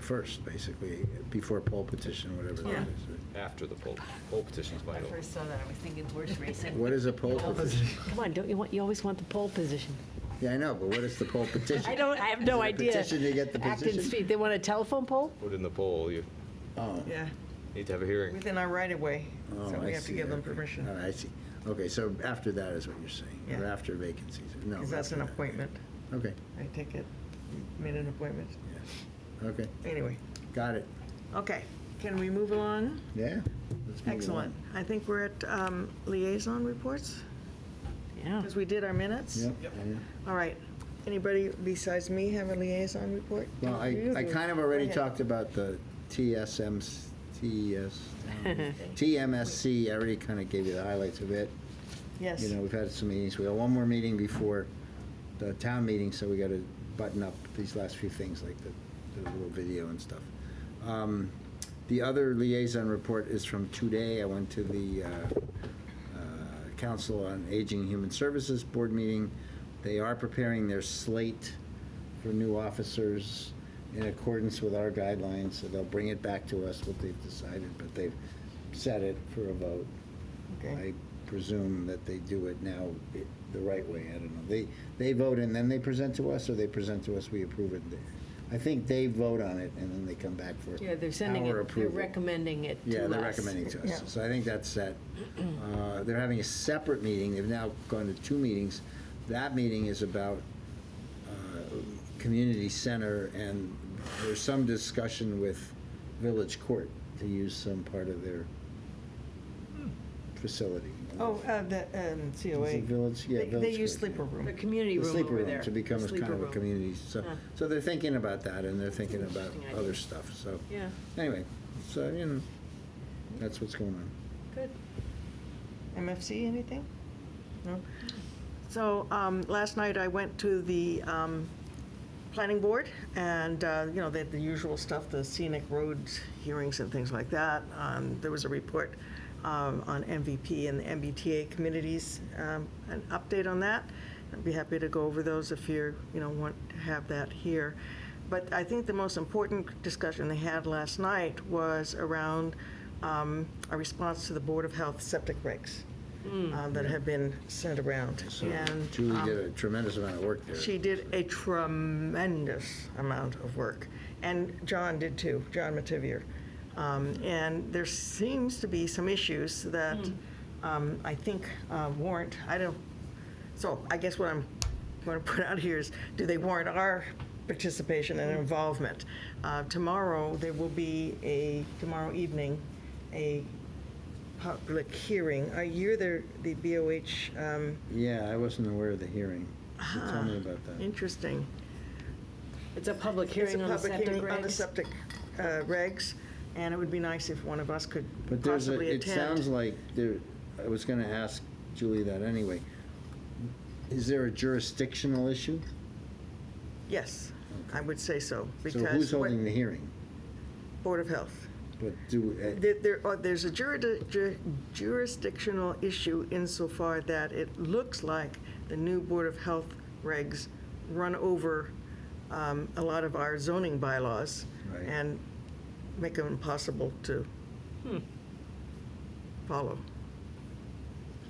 first, basically, before poll petition, whatever Yeah. that is. after the poll. Poll petition's I vital. first saw that, I was thinking horse racing. What is a poll petition? Come on, don't you want, you always want the pole position. Yeah, I know, but what is the poll petition? I don't, I have Is it no a idea. petition to get the Acton's position? feet, they want a telephone pole? Put in the poll, you Oh, Yeah, need to have a hearing. within our right of way, oh, so I we have to see, give them okay. permission, All right, I see. Okay, so after that is what you're saying, or Yeah. after vacancies, no. because that's after an that. appointment. Okay, I take it, you made an appointment. yeah, okay, Anyway, got it, okay, can we move along? yeah? let's move Excellent. I think we're at um, liaison reports, Yeah. because we did our along. minutes. Yep. yeah. All right, anybody besides me have a liaison report? Well, I, I kind of already ahead. talked about the TSMs, TS, TMSC, I already kind of gave you the highlights of it. Yes, You know, we've had some meetings, we got one more meeting before the town meeting, so we got to button up these last few things, like the, the little video and stuff. Um, The other liaison report is from today, I went to the uh, uh, Council on Aging and Human Services Board meeting. They are preparing their slate for new officers in accordance with our guidelines, so they'll bring it back to us, what they've decided, but they've set it for a vote. I okay, presume that they do it now i- the right way, I don't know. They, they vote and then they present to us, or they present to us, we approve it? I think they vote on it and then they come back for our approval. Yeah, they're sending it, they're recommending it to us. Yeah, they're recommending to us, Yeah. so I think that's set. Uh, They're having a separate meeting, they've now gone to two meetings. That meeting is about uh, community center, and there's some discussion with Village Court to use some part of their facility. oh, uh, the um, COA. Is it Village, yeah, They- Village. They use Court, yeah. sleeper room. The community The room sleeper over room there. To become The a kind sleeper of a room. community, so, Yeah. so they're thinking about that, and they're thinking about Interesting idea. other stuff, so. Yeah, Anyway, so, you know, that's what's going on. good. MFC, anything? No? So, um, last night I went to the, um, planning board and, uh, you know, they had the usual stuff, the scenic roads hearings and things like that. Um, there was a report, um, on MVP and the MBTA committees, um, an update on that. I'd be happy to go over those if you're, you know, want to have that here. But I think the most important discussion they had last night was around um, a response to the Board of Health septic regs um, that have been sent around. So And Julie um, did a tremendous amount of work there. she did a tremendous amount of work, and John did too, John Mativier. Um, And there seems to be some issues that um, I think uh, warrant, I don't, so I guess what I'm going to put out here is, do they warrant our participation and involvement? Uh, Tomorrow, there will be a, tomorrow evening, a public hearing. I hear there, the BOH um, Yeah, I wasn't aware of the hearing. So Tell Uh-huh. me about that. Interesting. It's a public It's a hearing on the public septic hearing on the regs. septic uh, regs, and it would be nice if one of us could But there's a, possibly it sounds attend. like there, I was gonna ask Julie that anyway. Is there a jurisdictional issue? Yes, I would say so, So who's because, what- holding the hearing? Board of Health. But do, uh, There- There, are- there's a jurid- ju- jurisdictional issue insofar that it looks like the new Board of Health regs run over um, a lot of our zoning bylaws Right. and make them impossible to follow.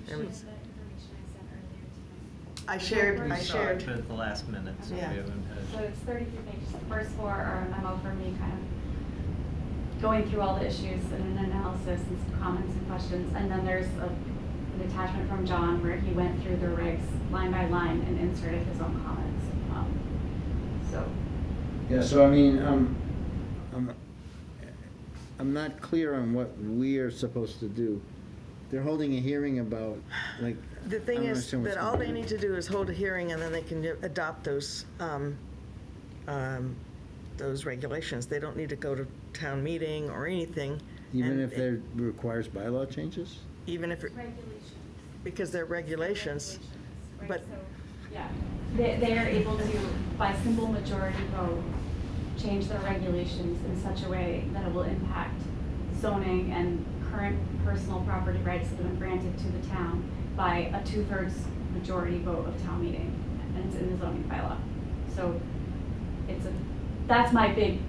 She And it's- has that information I sent earlier tonight. I shared, I We saw it. shared. But at the last minute, so we Yeah. haven't had. So it's thirty-three pages. The first four are a memo from me kind of going through all the issues and an analysis and some comments and questions. And then there's a- an attachment from John where he went through the regs line by line and inserted his own comments. Um, So Yeah, so I mean, um, I'm, I'm not clear on what we're supposed to do. They're holding a hearing about, like, The I thing don't is understand what's that all going they on. need to do is hold a hearing and then they can do- adopt those, um, um, those regulations. They don't need to go to town meeting or anything. even and if there requires bylaw changes? Even if, it- regulations. because they're regulations. Right, but- so, Yeah, they, they are able to, by simple majority vote, change their regulations in such a way that it will impact zoning and current personal property rights that have been granted to the town by a two-thirds majority vote of town meeting, and it's in the zoning bylaw. So it's a, that's my big